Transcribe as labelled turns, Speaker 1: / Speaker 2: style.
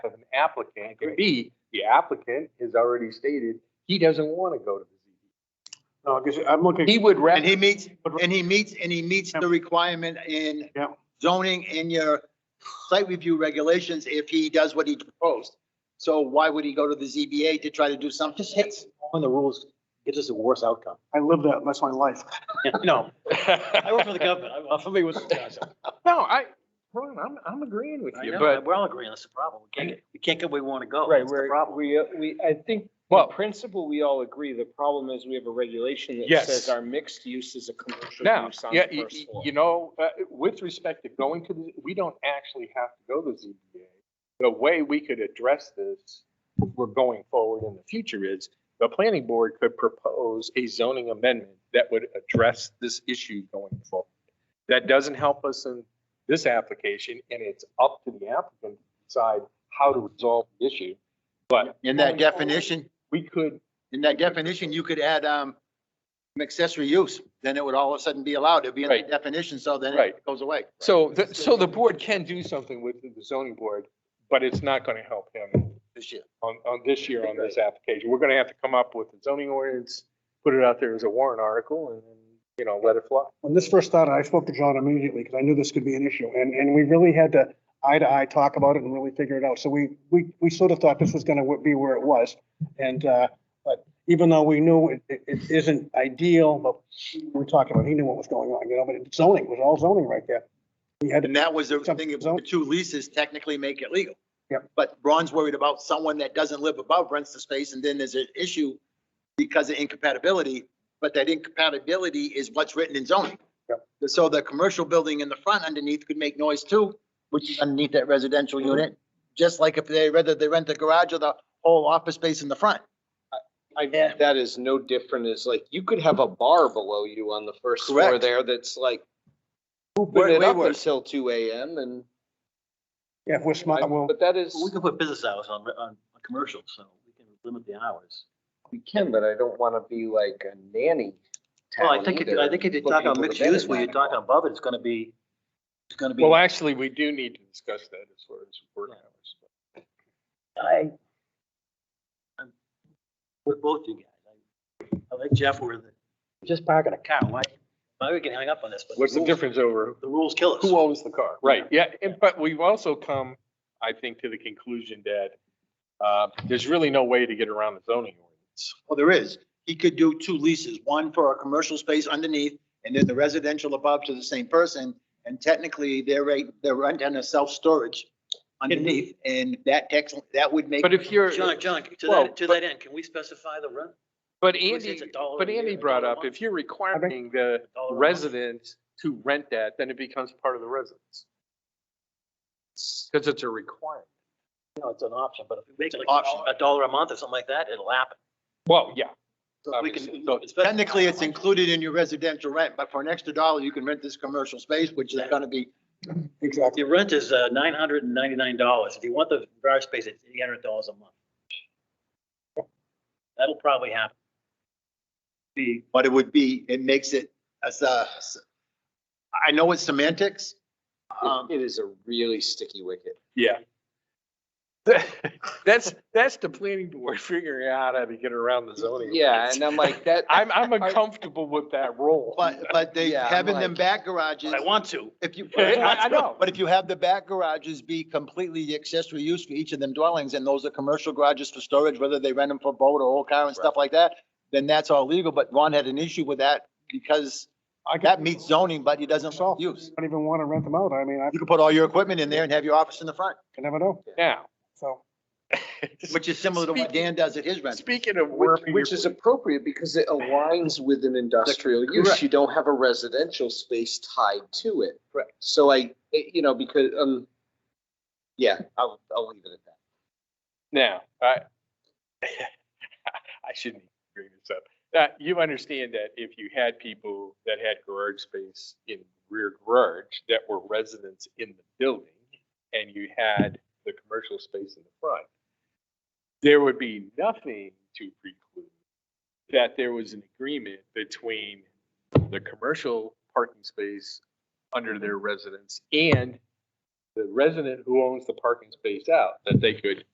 Speaker 1: applicant, and B, the applicant has already stated he doesn't want to go to the
Speaker 2: No, because I'm
Speaker 1: ZBA. He
Speaker 2: looking,
Speaker 1: would rather.
Speaker 3: And he meets, and he meets, and he meets the requirement in
Speaker 2: Yeah.
Speaker 3: zoning in your site review regulations if he does what he proposed. So why would he go to the ZBA to try to do something?
Speaker 4: Just hits on the rules, gives us a worse outcome.
Speaker 2: I live that, that's my life.
Speaker 4: No, I work for
Speaker 1: No,
Speaker 4: the government. I'm familiar with this.
Speaker 1: I, Ron, I'm, I'm agreeing with
Speaker 4: I
Speaker 1: you,
Speaker 4: know,
Speaker 1: but,
Speaker 4: we're all agreeing, that's the problem. We can't, get- we can't get where we want to go.
Speaker 5: Right,
Speaker 4: That's the
Speaker 5: we're,
Speaker 4: problem.
Speaker 5: we, uh, we, I think the
Speaker 1: well,
Speaker 5: principle, we all agree. The problem is we have a regulation that
Speaker 1: Yes.
Speaker 5: says our mixed use is a commercial
Speaker 1: now,
Speaker 5: use on
Speaker 1: yeah,
Speaker 5: the
Speaker 1: you,
Speaker 5: first
Speaker 1: you-
Speaker 5: floor.
Speaker 1: you know, uh, with respect to going to the, we don't actually have to go to ZBA. The way we could address this, we're going forward in the future is the planning board could propose a zoning amendment that would address this issue going forward. That doesn't help us in this application and it's up to the applicant to decide how to resolve the issue. But
Speaker 3: In that definition,
Speaker 1: we could
Speaker 3: in that definition, you could add, um, an accessory use, then it would all of a sudden be allowed. It'd be in the
Speaker 1: Right.
Speaker 3: definition, so then it
Speaker 1: Right.
Speaker 3: goes away.
Speaker 1: So, the- so the board can do something with the zoning board, but it's not going to help him
Speaker 3: This year.
Speaker 1: on, on this year on this application. We're going to have to come up with a zoning ordinance, put it out there as a warrant article and, then, you know, let it fly.
Speaker 2: When this first started, I spoke to John immediately because I knew this could be an issue and, and we really had to eye to eye talk about it and really figure it out. So we, we, we sort of thought this was gonna be where it was. And, uh, but even though we knew it, it- it isn't ideal, but we talked about, he knew what was going on, you know, but it's zoning, it was all zoning right there. We had to
Speaker 3: And that was the thing, the two leases technically make it legal.
Speaker 2: Yep.
Speaker 3: But Ron's worried about someone that doesn't live above rents the space and then there's an issue because of incompatibility, but that incompatibility is what's written in zoning.
Speaker 2: Yep.
Speaker 3: So the commercial building in the front underneath could make noise too, which is underneath that residential
Speaker 2: Mhm.
Speaker 3: unit, just like if they, whether they rent the garage or the whole office space in the front.
Speaker 5: I, that is no different as like, you could have a bar below you on the first floor
Speaker 3: Correct.
Speaker 5: there that's like, open
Speaker 3: Way-
Speaker 5: it
Speaker 3: way
Speaker 5: up
Speaker 3: worse.
Speaker 5: until two AM and,
Speaker 2: Yeah, if we're smart, we'll,
Speaker 5: but that is,
Speaker 4: We can put business hours on, on on commercials, so we can limit the hours.
Speaker 5: we can, but I don't want to be like a nanny
Speaker 4: Well, I
Speaker 5: town
Speaker 4: think, if-
Speaker 5: either.
Speaker 4: I think if you
Speaker 5: Put
Speaker 4: talk
Speaker 5: people
Speaker 4: about
Speaker 5: to
Speaker 4: mixed
Speaker 5: bed at
Speaker 4: use, where you're
Speaker 5: night.
Speaker 4: talking above it, it's gonna be, it's gonna be.
Speaker 1: Well, actually, we do need to discuss that as far as work hours.
Speaker 4: I. I'm With both you guys. I- I like Jeff where the, just parking a car, why, why we getting hung up on this? but
Speaker 1: What's the
Speaker 4: rules-
Speaker 1: difference over
Speaker 4: The rules kill us.
Speaker 1: who owns the car? Right, yeah, and, but we've also come, I think, to the conclusion that, uh, there's really no way to get around the zoning ordinance.
Speaker 3: Well, Oh, there is. He could do two leases, one for a commercial space underneath and then the residential above to the same person. And technically, they're right, they're renting a self-storage underneath and that text, that would make.
Speaker 1: But if you're.
Speaker 4: John, John, to
Speaker 1: Well,
Speaker 4: that, to that end, can we specify the rent?
Speaker 1: But
Speaker 4: Which
Speaker 1: Andy,
Speaker 4: is a dollar
Speaker 1: but
Speaker 4: a year,
Speaker 1: Andy
Speaker 4: a
Speaker 1: brought
Speaker 4: dollar a
Speaker 1: up,
Speaker 4: month.
Speaker 1: if you're requiring the
Speaker 4: Dollar a month?
Speaker 1: resident to rent that, then it becomes part of the residence. Because it's a requirement.
Speaker 4: No, it's an option, but if we make it like
Speaker 3: Option.
Speaker 4: a dollar a month or something like that, it'll happen.
Speaker 1: Well, yeah.
Speaker 3: So we can-
Speaker 1: So-
Speaker 4: Especially-
Speaker 3: Technically, it's included in your residential rent, but for an extra dollar, you can rent this commercial space, which is gonna be.
Speaker 2: exactly.
Speaker 4: Your rent is uh, nine hundred and ninety-nine dollars. If you want the garage space, it's eight hundred dollars a month. That'll probably happen. Be,
Speaker 3: But it would be, it makes it, as a, I know it's semantics. Um,
Speaker 5: It is a really sticky wicket.
Speaker 1: Yeah. That's, that's the planning board figuring out how to get around the zoning.
Speaker 5: Yeah,
Speaker 1: ordinance.
Speaker 5: and I'm like, that,
Speaker 1: I'm, I'm uncomfortable with that role.
Speaker 3: but, but they,
Speaker 5: Yeah, I'm
Speaker 3: having them
Speaker 5: like-
Speaker 3: back garages.
Speaker 4: I want to.
Speaker 3: If you.
Speaker 1: I, I know.
Speaker 3: But if you have the back garages be completely the accessory use for each of them dwellings, and those are commercial garages for storage, whether they rent them for boat or old car and stuff like that, then that's all legal, but Ron had an issue with that because
Speaker 2: I could-
Speaker 3: that meets zoning, but he doesn't
Speaker 2: Myself.
Speaker 3: use.
Speaker 2: Don't even wanna rent them out. I mean, I
Speaker 3: You can put all your equipment in there and have your office in the front,
Speaker 2: can never know,
Speaker 1: Now.
Speaker 2: so.
Speaker 3: which is similar to what Dan does at his rent.
Speaker 1: Speaking of.
Speaker 5: Which,
Speaker 1: working
Speaker 5: which
Speaker 1: your-
Speaker 5: is appropriate because it aligns with an industrial use.
Speaker 3: correct.
Speaker 5: You don't have a residential space tied to it.
Speaker 3: Correct.
Speaker 5: So I, it- you know, because, um, yeah, I'll, I'll leave it at that.
Speaker 1: Now, I, I shouldn't bring this up. That, you understand that if you had people that had garage space in rear garage that were residents in the building and you had the commercial space in the front, there would be nothing to preclude that there was an agreement between the commercial parking space under their residence and the resident who owns the parking space out, that they could